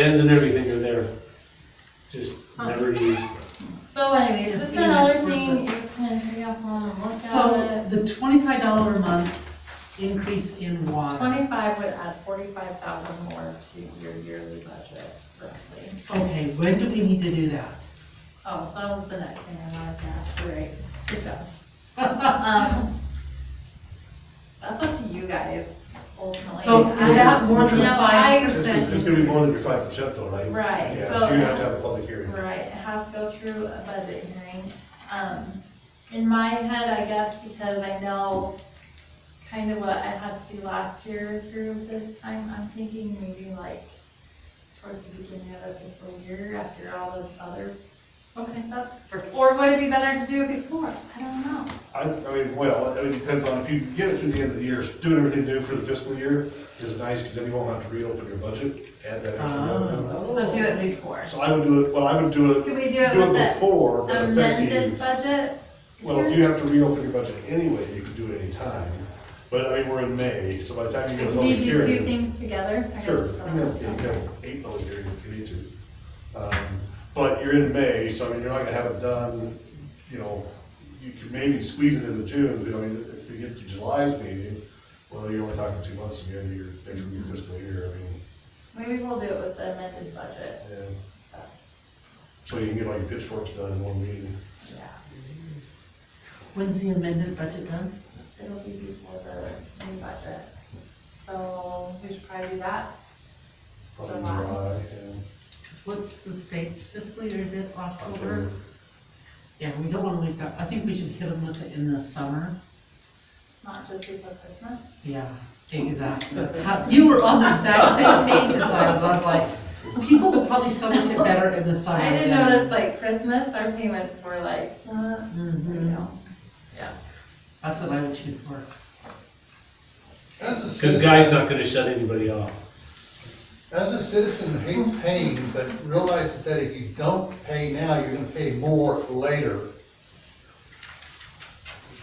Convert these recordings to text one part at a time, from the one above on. and everything are there, just never used. So anyways, just Yeah, another it's worth thing, you can take off home and look at So it. the twenty-five dollar a month increase in water, Twenty-five would add forty-five thousand more to your yearly budget roughly. okay, when do we need to do that? Oh, that was the next thing I wanted to ask, You're right, good job. Um, That's up to you guys ultimately. So is that more than You know, I- five It's, percent? it's gonna be more than your five percent though, right? Right, Yeah, so- so you have to have a public hearing. Right, it has to go through a budget hearing. Um, in my head, I guess, because I know kind of what I had to do last year through this time, I'm thinking maybe like towards the beginning of the fiscal year after all the other stuff. Or would it be better to do it before? I don't know. I, I mean, well, it depends on, if you get it through the end of the year, doing everything new for the fiscal year is nice, because then you won't have to reopen your budget, add that extra revenue. So do it before. So I would do it, well, I would do it, Could we Ah. do it do it with the before, but amended effective. budget? Well, if you have to reopen your budget anyway, you can do it anytime, but I mean, we're in May, so by the time you get a Can public you do two hearing. things together? I guess Sure, you that's what can I'm have, you can thinking. have eight public hearings if you need to. Um, But you're in May, so I mean, you're not gonna have it done, you know, you could maybe squeeze it into June, but I mean, if we get to July's meeting, well, you're only talking two months at the end of your, end of your fiscal year, I mean, Maybe we'll do it with the amended budget and stuff. so you can get all your pitchforks done in one meeting. Yeah, When's the amended budget done? it'll be before the new budget. So we should probably do that. Probably in July. July, and, 'Cause what's the state's fiscal year, is it October? October. Yeah, we don't wanna leave that, I think we should hit them with it in the summer. Not just before Christmas. Yeah, exactly. That's how- You were on the exact same page as I was, I was like, people will probably stomach it better in the summer. I did than- notice like Christmas, our payments were like, uh, you Mhm, know. That's what I would shoot for. As a Cause citizen, Guy's not gonna shut anybody off. as a citizen that hates paying, but realizes that if you don't pay now, you're gonna pay more later.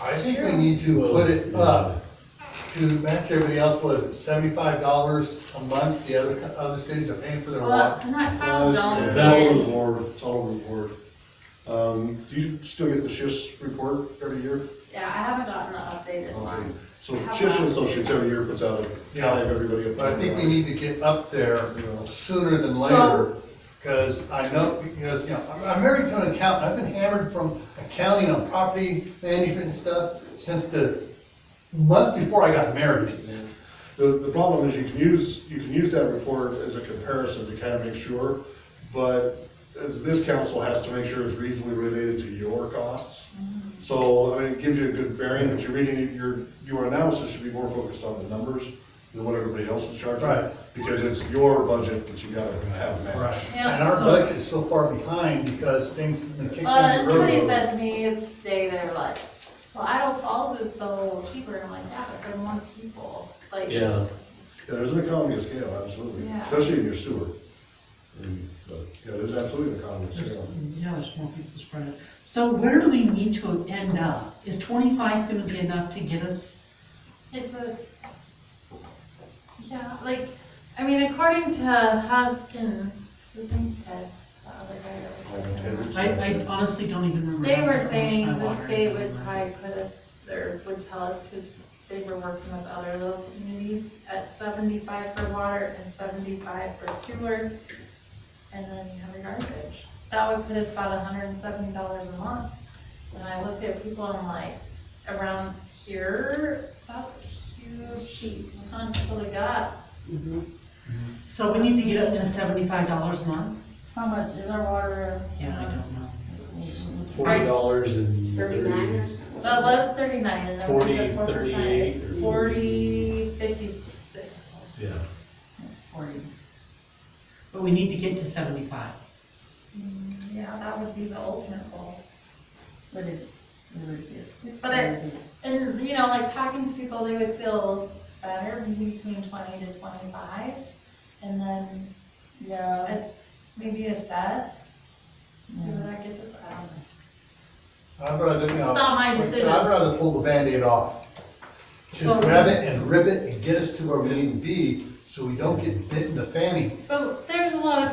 I think we need to put it up to match everybody else, what is it, seventy-five dollars a month, the other, co- other cities are paying for their Well, water. not Kyle Jones. That's all over did. the board, it's all over the board. Um, do you still get the shifts report every year? Yeah, I haven't gotten the updated Okay, one. so Chisholm Associates every year puts out a tally of everybody. up But I think we need to get up there You know. sooner than So- later, because I know, because, you know, I'm- I'm married to an accountant, I've been hammered from accounting on property management and stuff since the month before I got married. The, the problem is you can use, you can use that report as a comparison to kind of make sure, but as this council has to make sure it's reasonably related to your costs. Mm-hmm. So, I mean, it gives you a good bearing, but you're reading, your, your analysis should be more focused on the numbers than what everybody else is charging. Right. Because it's your budget that you gotta have matched. Yeah, And our so- Uh, budget is so far behind because things have been kicked Well, down and the somebody road. said to me today, they were like, well, Idle Falls is so cheaper. And I'm like, yeah, but for more people, like. Yeah, Yeah, there's an economy of scale, absolutely, Yeah. especially in your sewer. And, but, yeah, there's absolutely an economy of scale. Yeah, there's more people spread out. So where do we need to end up? Is twenty-five gonna be enough to get us? It's a, yeah, like, I mean, according to Huskin, his name Ted, the other guy that was working on it, I, I honestly don't even remember. They how were much my saying the water state is. would probably put us, or would tell us, because they were working with other little communities, at seventy-five for water and seventy-five for sewer, and then you have your garbage. That would put us about hundred and seventy dollars a month. And I look at people, I'm like, around here, that's a huge sheet, you can't totally got. So we need to get up to seventy-five dollars a month? How much is our water? Yeah, I don't know. it's forty dollars and Thirty-nine thirty, or something? That was thirty-nine, and then we Forty, did four percent. thirty-eight, It's or- Forty, fifty-six, yeah. Forty. But we need to get to seventy-five. Mm, yeah, that would be the ultimate goal. But it, but it- But it- And, you know, like, talking to people, they would feel better between twenty to twenty-five, and then Yeah, uh, maybe assess, see what that gets us out. I'd rather, you know, It's not my like I said, decision. I'd rather pull the Band-Aid off. So- Just grab it and rip it and get us to where we need to be, so we don't get bit in the fanny. But there's a lot of